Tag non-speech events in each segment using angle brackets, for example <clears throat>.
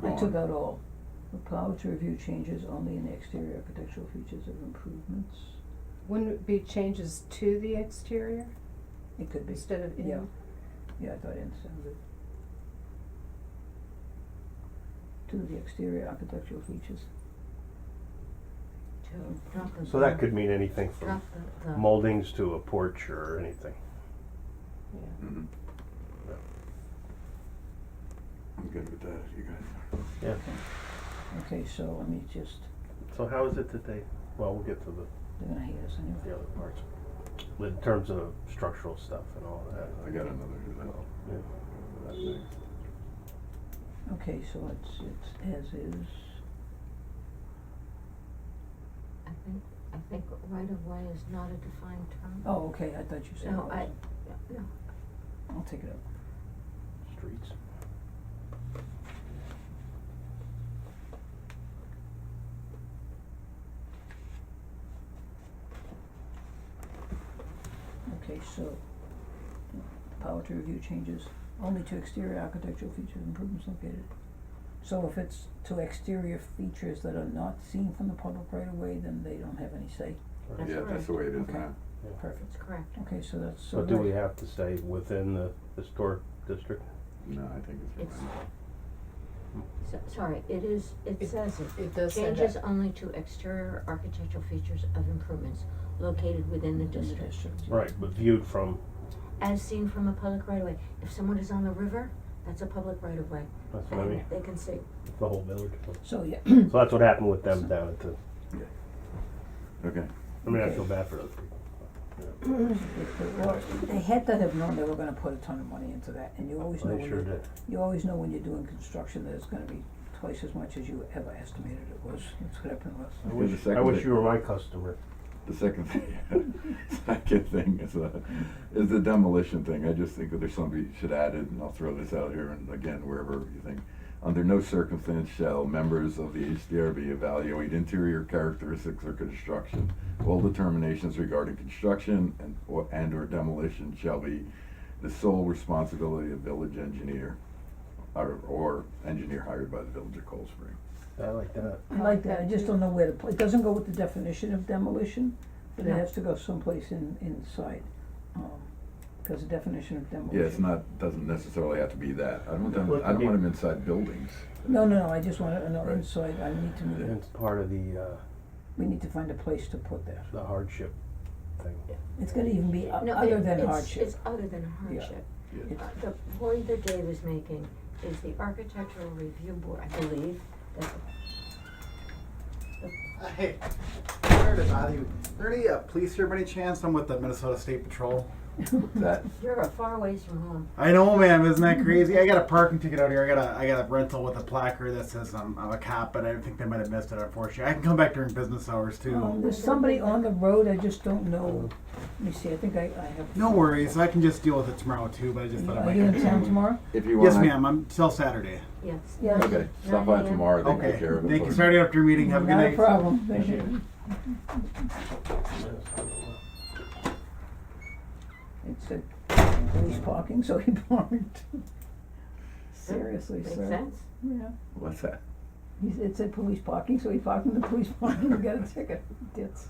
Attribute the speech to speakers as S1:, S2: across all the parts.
S1: That's about all. Power to review changes only in the exterior architectural features of improvements.
S2: Wouldn't it be changes to the exterior
S1: It could be,
S2: instead of in?
S1: Yeah. yeah, I thought it sounded. To the exterior architectural features.
S3: So that could mean anything from
S4: Drop the, the.
S3: moldings to a porch or anything.
S2: Yeah.
S5: Mhm. I'm good with that, if you guys are.
S3: Yeah.
S1: Okay, so let me just,
S3: So how is it that they, well, we'll get to the,
S1: they're gonna hate us anyway.
S3: the other parts. In terms of structural stuff and all that.
S5: I got another, that,
S3: Yeah.
S5: that next.
S1: Okay, so it's, it's as is,
S4: I think, I think right of way is not a defined term.
S1: oh, okay, I thought you said it
S4: No, I,
S1: was.
S4: no,
S1: I'll take it up.
S3: Streets.
S1: Okay, so, power to review changes only to exterior architectural features and improvements located. So if it's to exterior features that are not seen from the public right of way, then they don't have any say.
S3: Right.
S4: That's
S5: Yeah, that's the way it is
S1: Okay.
S5: now.
S1: Perfect.
S4: that's correct.
S1: Okay, so that's, so
S3: So do
S1: that-
S3: we have to say within the historic district?
S5: No, I think it's
S4: It's,
S5: fine.
S4: so, sorry, it is, it
S2: It-
S4: says it.
S2: it does say
S4: Changes
S2: that.
S4: only to exterior architectural features of improvements located within the
S1: within the
S4: district,
S1: district, yeah.
S3: Right, but viewed from,
S4: as seen from a public right of way. If someone is on the river, that's a public right of way.
S3: that's what I mean,
S4: And They can see.
S3: the whole village.
S1: So, yeah, <clears throat>
S3: So that's what happened with them down at the,
S5: Okay,
S3: I mean, I
S1: Okay.
S3: feel bad for those people.
S1: if they, well, they had to have known they were gonna put a ton of money into that, and you always know
S3: They
S1: when
S3: sure
S1: you,
S3: did.
S1: you always know when you're doing construction that it's gonna be twice as much as you ever estimated it was, that's what happened with.
S3: I
S5: the
S3: wish, I
S5: second
S3: wish
S5: thing-
S3: you were my customer.
S5: the second thing, <laughs> second thing is, uh, is the demolition thing, I just think that there's somebody should add it, and I'll throw this out here, and again, wherever you think. Under no circumstance shall members of the HDRB evaluate interior characteristics or construction. All determinations regarding construction and, or, and or demolition shall be the sole responsibility of village engineer, or, or engineer hired by the village of Cold Spring.
S3: I like that.
S1: I like that, I just don't know where to, put- it doesn't go with the definition of demolition, but it
S4: No.
S1: has to go someplace in, inside, um, cause the definition of demolition.
S5: Yeah, it's not, doesn't necessarily have to be that, I don't,
S3: Well, it
S5: I
S3: could
S5: don't
S3: be-
S5: want them inside buildings.
S1: No, no, no, I just wanna know
S5: Right.
S1: inside, I need to, know-
S3: And it's part of the, uh,
S1: we need to find a place to put that,
S3: the hardship thing.
S1: it's gonna even be o-
S4: No,
S1: Uh, other
S4: it-
S1: than
S4: it's-
S1: hardship.
S4: It's other than hardship.
S5: Yeah.
S4: Uh, The point that Dave is making is the architectural review board, I believe, that
S6: Hey, sorry to bother you. Are there any uh, police here by any chance? I'm with the Minnesota State Patrol.
S5: That,
S4: you're a far ways from home.
S6: I know, ma'am. Isn't that crazy? I got a parking ticket out here. I got a I got a rental with a placard that says I'm, I'm a cop, but I think they might have missed it. Unfortunately, I can come back during business hours too.
S1: Um, there's somebody on the road, I just don't know, let me see, I think I, I have.
S6: no worries. I can just deal with it tomorrow too. But I just thought I
S1: Are
S6: might.
S1: you in town tomorrow?
S5: if you want.
S6: Yes, ma'am. I'm till Saturday.
S4: Yes.
S1: Yeah.
S5: Okay, stop by
S4: 9 a.m.
S5: tomorrow, they
S6: Okay.
S5: take care of it.
S6: Thank
S5: for
S6: you. Saturday after your meeting. Have a good
S1: Not
S6: night.
S1: a problem, thank
S6: Appreciate
S1: you.
S3: Yes.
S1: It said police parking, so he <laughs> parked. Seriously,
S4: Makes
S1: sir.
S4: sense.
S1: Yeah.
S5: What's that?
S1: He said, it said police parking, so he parked in the police <laughs> parking and got a ticket. That's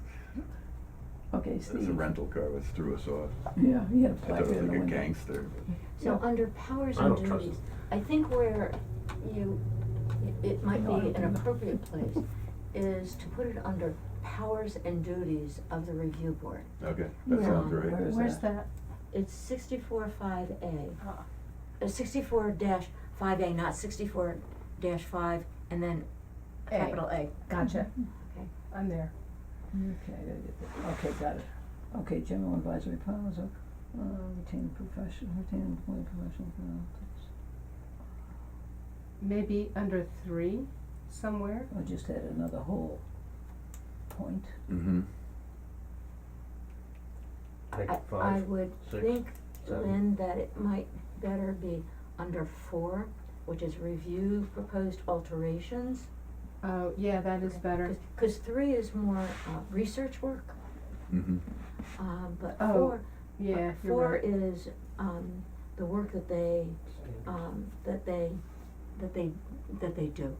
S1: Okay,
S5: It's a
S1: Steve.
S5: rental car, that's threw us off.
S1: Yeah, he had a
S5: I thought
S1: placard
S5: it was
S1: in the
S5: like a
S1: window.
S5: gangster.
S4: So
S1: Yeah.
S4: under powers
S3: I
S4: and
S3: don't trust
S4: duties, I think where you, it might
S1: No, I
S4: be
S1: don't
S4: an
S1: either.
S4: appropriate place is to put it under powers and duties of the review board.
S5: Okay, that
S1: Yeah.
S5: sounds right.
S1: Where is
S2: Where's that?
S4: It's sixty-four five A,
S2: Ah.
S4: uh, sixty-four dash five A, not sixty-four dash five, and then
S2: A.
S4: capital A.
S2: Gotcha.
S4: Okay.
S2: I'm there.
S1: Okay, I gotta get that. Okay, got it. Okay, general advisory powers of, uh, retain professional, retain employee professional. conduct.
S2: Maybe under three somewhere.
S1: I just had another whole point.
S5: Mm-hmm.
S3: Take
S4: I, I
S3: five.
S4: would
S3: six,
S4: think,
S3: seven.
S4: Lynn, that it might better be under four, which is review proposed alterations.
S2: Oh, yeah, that is better.
S4: Cause three is more, uh, research work,
S5: Mm-hmm.
S4: um, but
S2: Oh,
S4: four,
S2: Yeah, you're
S4: four
S2: right.
S4: is, um, the work that they, um, that they, that they, that they do.